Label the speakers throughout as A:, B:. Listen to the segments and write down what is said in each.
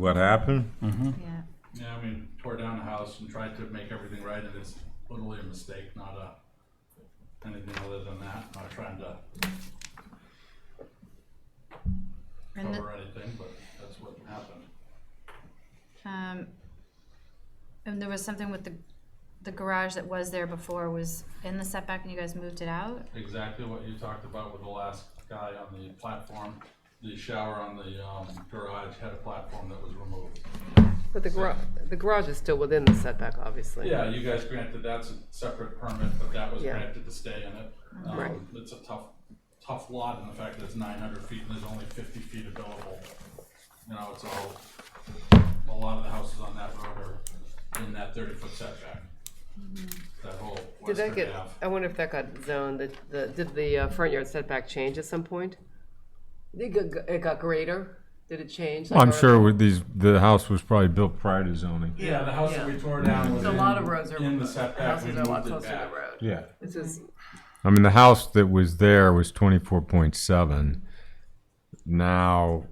A: what happened?
B: Yeah.
C: Yeah, I mean, tore down the house and tried to make everything right, and it's literally a mistake, not a, anything other than that, not trying to
B: And the,
C: cover anything, but that's what happened.
B: um, and there was something with the, the garage that was there before was in the setback and you guys moved it out?
C: Exactly what you talked about with the last guy on the platform, the shower on the, um, garage had a platform that was removed.
D: But the garage, the garage is still within the setback, obviously.
C: Yeah, you guys granted that's a separate permit, but that was
D: Yeah.
C: granted to stay in it. Um,
D: Right.
C: It's a tough, tough lot and the fact that it's nine hundred feet and there's only fifty feet available. You know, it's all, a lot of the houses on that road are in that thirty foot setback.
D: Mm-hmm.
C: That whole
D: Did that
C: western
D: get,
C: half.
D: I wonder if that got zoned, the, the, did the uh, front yard setback change at some point? It got, it got greater? Did it change?
A: Well,
D: like,
A: I'm
D: or-
A: sure with these, the house was probably built prior to zoning.
C: Yeah, the house that
D: yeah.
C: we tore down was
D: A lot of roads
C: in,
D: are,
C: in the setback, we
D: houses are a lot
C: moved it
D: closer to
C: back.
D: the road.
A: Yeah.
D: This is,
A: I mean, the house that was there was twenty-four point seven. Now,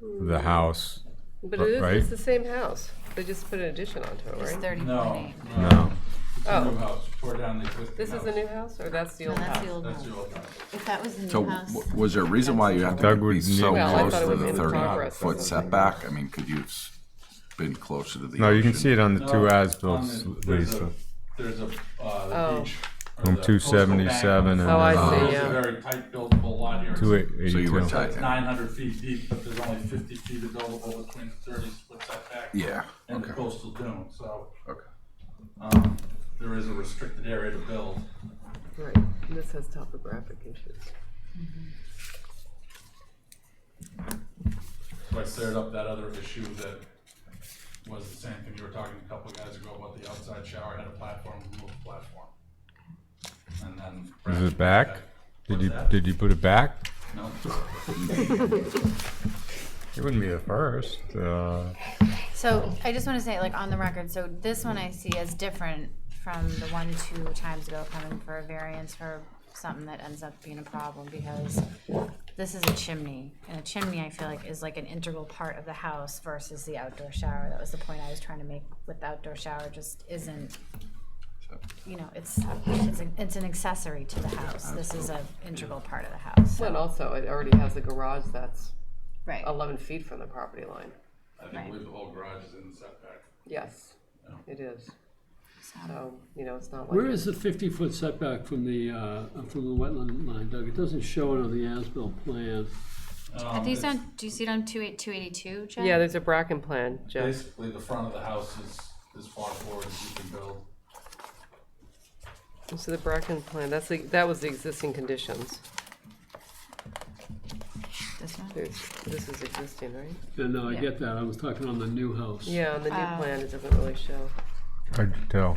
A: the house,
D: but it is,
A: Right.
D: it's the same house. They just put an addition onto it,
B: It's
D: right?
B: thirty
C: No,
B: point eight.
C: no,
A: no,
C: it's a new house, We tore down the existing
D: Oh. This is
C: house.
D: the new house, or that's the
B: No,
D: old
B: Oh, that's the
D: house?
B: old
C: That's
B: house.
C: your old house.
B: If that was the
E: So
B: new house,
E: w- was there a reason why you had to
A: Doug would
E: be so
A: need- Well, I
E: close
D: thought it
E: to
D: was
E: the
D: in
E: thirty
D: progress or
E: foot
D: something.
E: setback? I mean, could you have been closer to the?
A: no, you can see
E: ocean?
A: it on the two
C: No,
A: as-built
C: on the-
A: Lisa.
C: There's a, there's a, uh,
D: Oh.
C: the beach. or
A: From
C: the
A: two
C: coastal bank.
A: seventy-seven and
D: Oh, I
A: then
D: see.
C: It's
D: yeah.
C: a very tight buildable lot here.
A: two
E: So you were
A: eighty-two.
E: tight.
C: It's nine hundred feet deep, but there's only fifty feet available between the thirty split setback.
E: Yeah,
C: And the
E: okay,
C: coastal dune, so,
E: okay.
C: um, there is a restricted area to build.
D: Right, and this has topographic issues.
C: So I cleared up that other issue that was the same thing you were talking a couple of guys ago about the outside shower had a platform, removed the platform. And then.
A: Is it back? Did
C: What's
A: you,
C: that?
A: did you put it back?
C: No,
A: It wouldn't be the first, uh.
B: so I just wanna say, like, on the record, so this one I see as different from the one two times ago coming for a variance for something that ends up being a problem because this is a chimney, and a chimney I feel like is like an integral part of the house versus the outdoor shower. That was the point I was trying to make with the outdoor shower, just isn't, you know, it's, it's an, it's an accessory to the house. This is an integral part of the house, so,
D: Well, and also, it already has a garage that's
B: right.
D: eleven feet from the property line.
C: I think I believe the whole garage is in the setback.
D: Yes,
C: Oh.
D: it is. So, Oh, you know, it's not like.
F: Where is the fifty-foot setback from the, uh, from the wetland line, Doug? It doesn't show it on the as-built plan.
C: Um,
B: Are these on, do you see it on two eight, two eighty-two, Jeff?
D: Yeah, there's a Bracken plan, Jeff.
C: Basically, the front of the house is as far forward as you can build.
D: So the Bracken plan, that's the, that was the existing conditions.
B: This one?
D: There's, this is existing, right?
F: Yeah, no, I
B: Yeah.
F: get that. I was talking on the new house.
D: Yeah, on the new
B: Uh,
D: plan, it doesn't really show.
A: Hard to tell.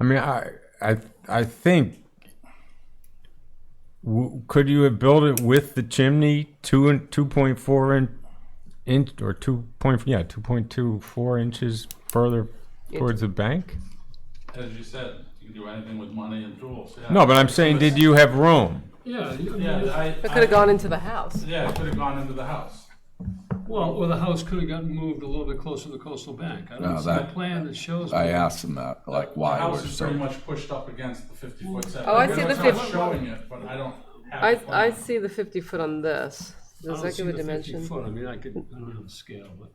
A: I mean, I, I, I think. W- could you have built it with the chimney two and two point four in, inch or two point yeah two point two four inches further towards the bank?
C: As you said, you can do anything with money and tools, yeah.
A: No, but I'm saying, did you have room?
F: Yeah, you-
C: Yeah, I.
D: It
F: Uh,
D: could have gone into the house.
C: Yeah, it could have gone into the house.
F: well, or the house could have gotten moved a little bit closer to the coastal bank. I
E: No,
F: don't see a
E: that-
F: plan that shows.
E: I
F: me.
E: asked him that, like,
C: The
E: why
C: house
E: we're
C: is pretty
E: so,
C: much pushed up against the fifty foot setback.
D: Oh, I see
C: It's
D: the
C: not
D: 50
C: Showing it, but I don't
D: I,
C: have the
D: I
C: plan.
D: see the fifty foot on this.
F: I don't
D: Does that
F: see
D: give a
F: the 50
D: dimension?
F: foot. I mean, I could, I don't have the scale, but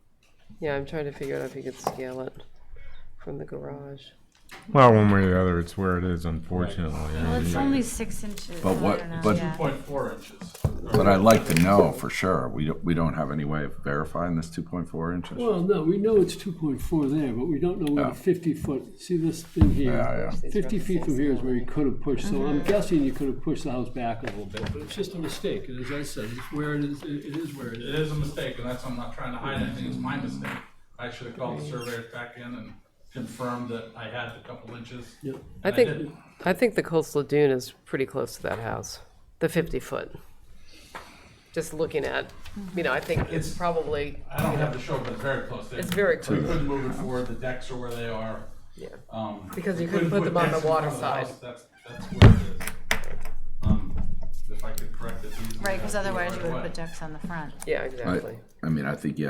D: Yeah, I'm trying to figure out if you could scale it from the garage.
A: Well, one way or the other, it's where it is. Unfortunately, I
B: Well,
A: mean,
B: it's only six inches.
E: But
B: I
E: what-
B: don't know,
E: but-
B: yeah.
C: Point four inches.
E: but I'd like to know for sure. We don't, we don't have any way of verifying this two point four inches. Yeah,
F: well, no, we know it's two point four there, but we don't know where
E: Yeah.
F: the fifty foot. See this thing here.
E: yeah.
F: Fifty feet from here is where you could have pushed, so I'm guessing you could have pushed the house back a little bit, but it's just a mistake, and as I said, it's where it is, it it is where it
C: It is
F: is.
C: a mistake, and that's, I'm not trying to hide anything, it's my mistake. I should have called the surveyor back in and confirmed that I had the couple inches.
F: Yeah.
D: I
C: I
D: think,
C: didn't.
D: I think the coastal dune is pretty close to that house, the fifty foot. Just looking at, you know, I think it's
C: It's-
D: probably,
C: I don't have the show, but it's very close.
D: It's very
C: We
D: close.
C: couldn't move it forward, the decks are where they are.
D: yeah.
C: Um,
D: Because you
C: we
D: couldn't put them on
C: decks
D: the
C: in front
D: water
C: of the house.
D: side.
C: That's, that's where it is. Um, If I could correct it easily.
B: Right, because
C: I'd do it
B: otherwise you
C: right
B: would have
C: away.
B: put decks on the front.
D: Yeah,
E: I,
D: exactly.
E: I mean, I think you